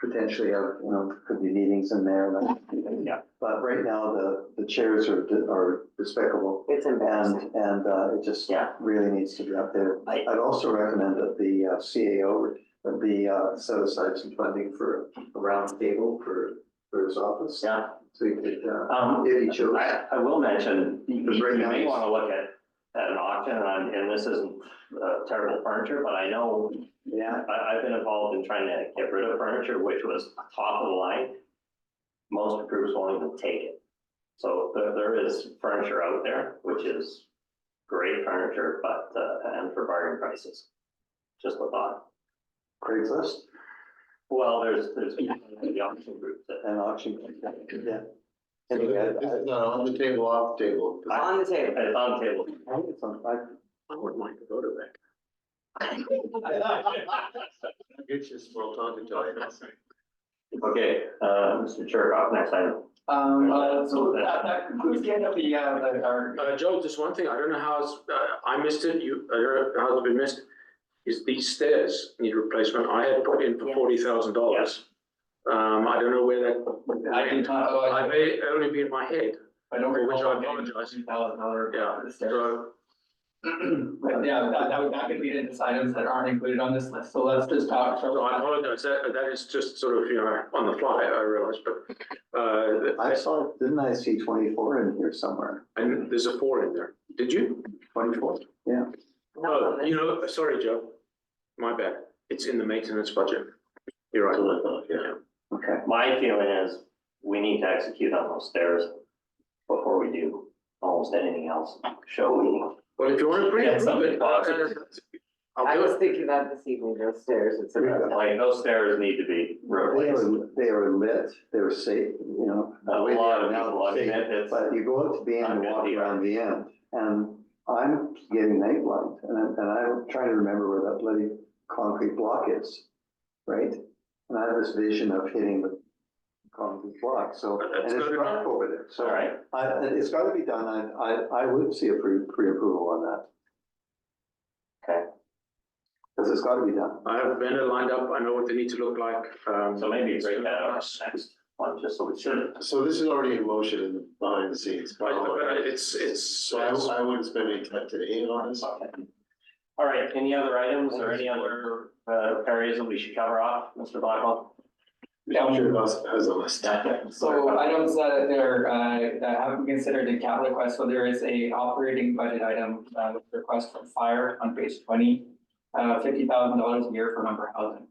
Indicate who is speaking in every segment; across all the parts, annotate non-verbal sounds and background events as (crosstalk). Speaker 1: potentially have, you know, could be meetings in there. like-
Speaker 2: Yeah.
Speaker 1: But right now, the, the chairs are, are despicable
Speaker 3: It's embarrassing.
Speaker 1: and, and, uh, it just
Speaker 3: Yeah.
Speaker 1: really needs to be up there.
Speaker 2: I-
Speaker 1: I'd also recommend that the uh, CAO, would be, uh, set aside some funding for a round table for, for his office.
Speaker 2: Yeah,
Speaker 1: So you could, uh,
Speaker 2: um,
Speaker 1: if he chose.
Speaker 2: I, I will mention, you
Speaker 1: Because right
Speaker 2: you
Speaker 1: now
Speaker 2: may
Speaker 1: it's-
Speaker 2: wanna look at, at an auction, and, I'm- and this isn't uh, terrible furniture, but I know
Speaker 1: Yeah.
Speaker 2: I, I've been involved in trying to get rid of furniture, which was top of the line. Most groups won't even take it. So there, there is furniture out there, which is great furniture, but, uh, and for bargain prices. Just a thought.
Speaker 1: Craigslist
Speaker 2: Well, there's, there's the auction group that,
Speaker 1: and auction. Yeah. uh,
Speaker 4: So
Speaker 1: Anyway, I-
Speaker 4: This this is not on the table, off the table.
Speaker 3: On the table.
Speaker 2: it's on the table.
Speaker 1: I think it's on, I,
Speaker 4: I would like to go to that. Get you small talking to.
Speaker 2: Okay, uh, Mr. Chirkoff, next item.
Speaker 5: Um, uh, so that, that concludes the end of the, uh, the- our,
Speaker 6: Uh, Joe, just one thing, I don't know how it's, uh, I missed it, you, I don't know how it's been missed. Is these stairs need replacement? I had put in for
Speaker 3: Yeah.
Speaker 6: forty thousand dollars. Um, I don't know where that.
Speaker 5: I did not, oh,
Speaker 6: I
Speaker 5: I,
Speaker 6: may only be in my head,
Speaker 5: I don't
Speaker 6: Which
Speaker 5: recall.
Speaker 6: I apologize.
Speaker 5: Thousand dollar,
Speaker 6: Yeah,
Speaker 5: the stairs.
Speaker 6: so,
Speaker 5: (clears throat) But yeah, that, that would, that could be the items that aren't included on this list, so let's just talk.
Speaker 6: so I apologize, that, that is just sort of, you know, on the fly, I realize, but, uh,
Speaker 1: I saw, didn't I see twenty-four in here somewhere?
Speaker 6: and there's a four in there. Did you?
Speaker 1: Twenty-four?
Speaker 3: Not on
Speaker 6: Oh,
Speaker 3: this.
Speaker 6: you know, sorry, Joe. My bad. It's in the maintenance budget. You're right, yeah.
Speaker 1: Okay.
Speaker 2: My feeling is we need to execute on those stairs before we do almost anything else. Show me.
Speaker 6: Well, if you want to bring
Speaker 2: Yeah,
Speaker 6: it,
Speaker 2: something
Speaker 6: Ruben, I'll
Speaker 2: positive.
Speaker 3: I
Speaker 6: do
Speaker 3: was
Speaker 6: it.
Speaker 3: thinking that this evening, those stairs, it's about that.
Speaker 2: Like those stairs need to be
Speaker 1: They
Speaker 2: replaced.
Speaker 1: were, they were lit, they were safe, you know.
Speaker 2: A lot of
Speaker 1: Now
Speaker 2: people, I
Speaker 1: they're
Speaker 2: mean,
Speaker 1: safe,
Speaker 2: it's,
Speaker 1: But you go up to the end
Speaker 2: I'm
Speaker 1: and
Speaker 2: good
Speaker 1: walk
Speaker 2: here.
Speaker 1: around the end, and I'm getting night blind, and I'm, and I'm trying to remember where that bloody concrete block is, right? And I have this vision of hitting the concrete block, so,
Speaker 6: But
Speaker 1: and
Speaker 6: that's
Speaker 1: it's
Speaker 6: good enough.
Speaker 1: rough over there,
Speaker 2: all
Speaker 1: so.
Speaker 2: right.
Speaker 1: I, and it's gotta be done, I, I, I would see a pre, pre-approval on that.
Speaker 2: Okay.
Speaker 1: Cause it's gotta be done.
Speaker 6: I have a vendor lined up. I know what they need to look like. Um,
Speaker 2: So maybe break that out
Speaker 6: Right,
Speaker 2: next one, just so we should.
Speaker 4: So this is already in motion in the behind the scenes.
Speaker 6: But uh, it's, it's,
Speaker 4: So
Speaker 2: uh,
Speaker 4: I I wouldn't spend any time today on this.
Speaker 2: All right, any other items or any other uh, areas that we should cover off, Mr. Blackwell?
Speaker 5: Yeah.
Speaker 4: Sure, boss has a list.
Speaker 5: So items that are, uh, that haven't been considered in capital request, so there is a operating budget item, uh, with request from fire on page twenty. Uh, fifty thousand dollars a year for member housing.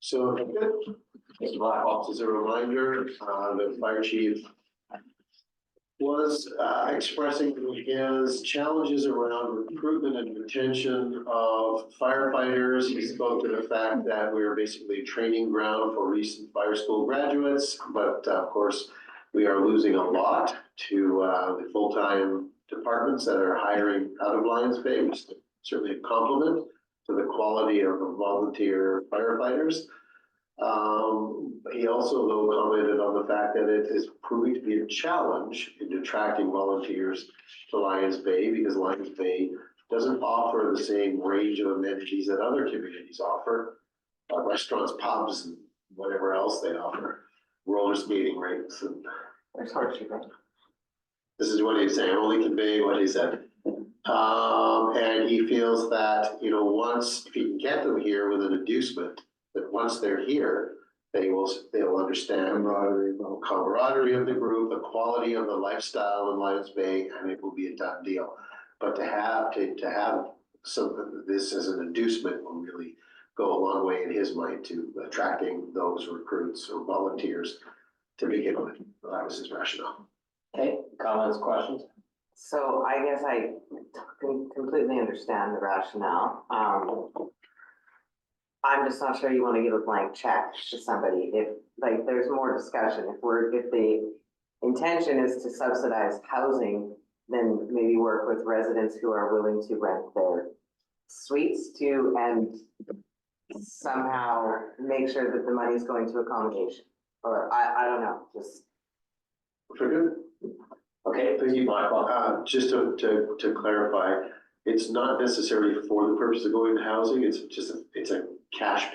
Speaker 4: So, Mr. Blackhawk, as a reminder, uh, the fire chief was, uh, expressing his challenges around recruitment and retention of firefighters. He spoke to the fact that we are basically training ground for recent fire school graduates, but uh, of course, we are losing a lot to, uh, the full-time departments that are hiring out of Lions Bay, which is certainly a compliment to the quality of the volunteer firefighters. Um, he also though commented on the fact that it is proving to be a challenge in attracting volunteers to Lions Bay because Lions Bay doesn't offer the same range of amenities that other communities offer. uh, restaurants, pubs, and whatever else they offer, roller skating rinks, and
Speaker 3: It's hard to go.
Speaker 4: this is what he's saying, I'm only conveying what he said. Um, and he feels that, you know, once, if you can get them here with an inducement, that once they're here, they will, they will understand
Speaker 1: Camaraderie, well.
Speaker 4: the camaraderie of the group, the quality of the lifestyle in Lions Bay, and it will be a done deal. But to have, to, to have something, this as an inducement will really go a long way in his mind to attracting those recruits or volunteers to begin with. That was his rationale.
Speaker 2: Okay, comments, questions?
Speaker 3: So I guess I com- completely understand the rationale. Um, I'm just not sure you want to give a blank check to somebody if, like, there's more discussion. If we're, if the intention is to subsidize housing, then maybe work with residents who are willing to rent their suites to and somehow make sure that the money's going to accommodation. Or I, I don't know, just,
Speaker 4: Forget-
Speaker 2: Okay,
Speaker 4: Thank you,
Speaker 2: Blackwell.
Speaker 4: Uh, just to, to, to clarify, it's not necessarily for the purpose of going to housing, it's just, a- it's a cash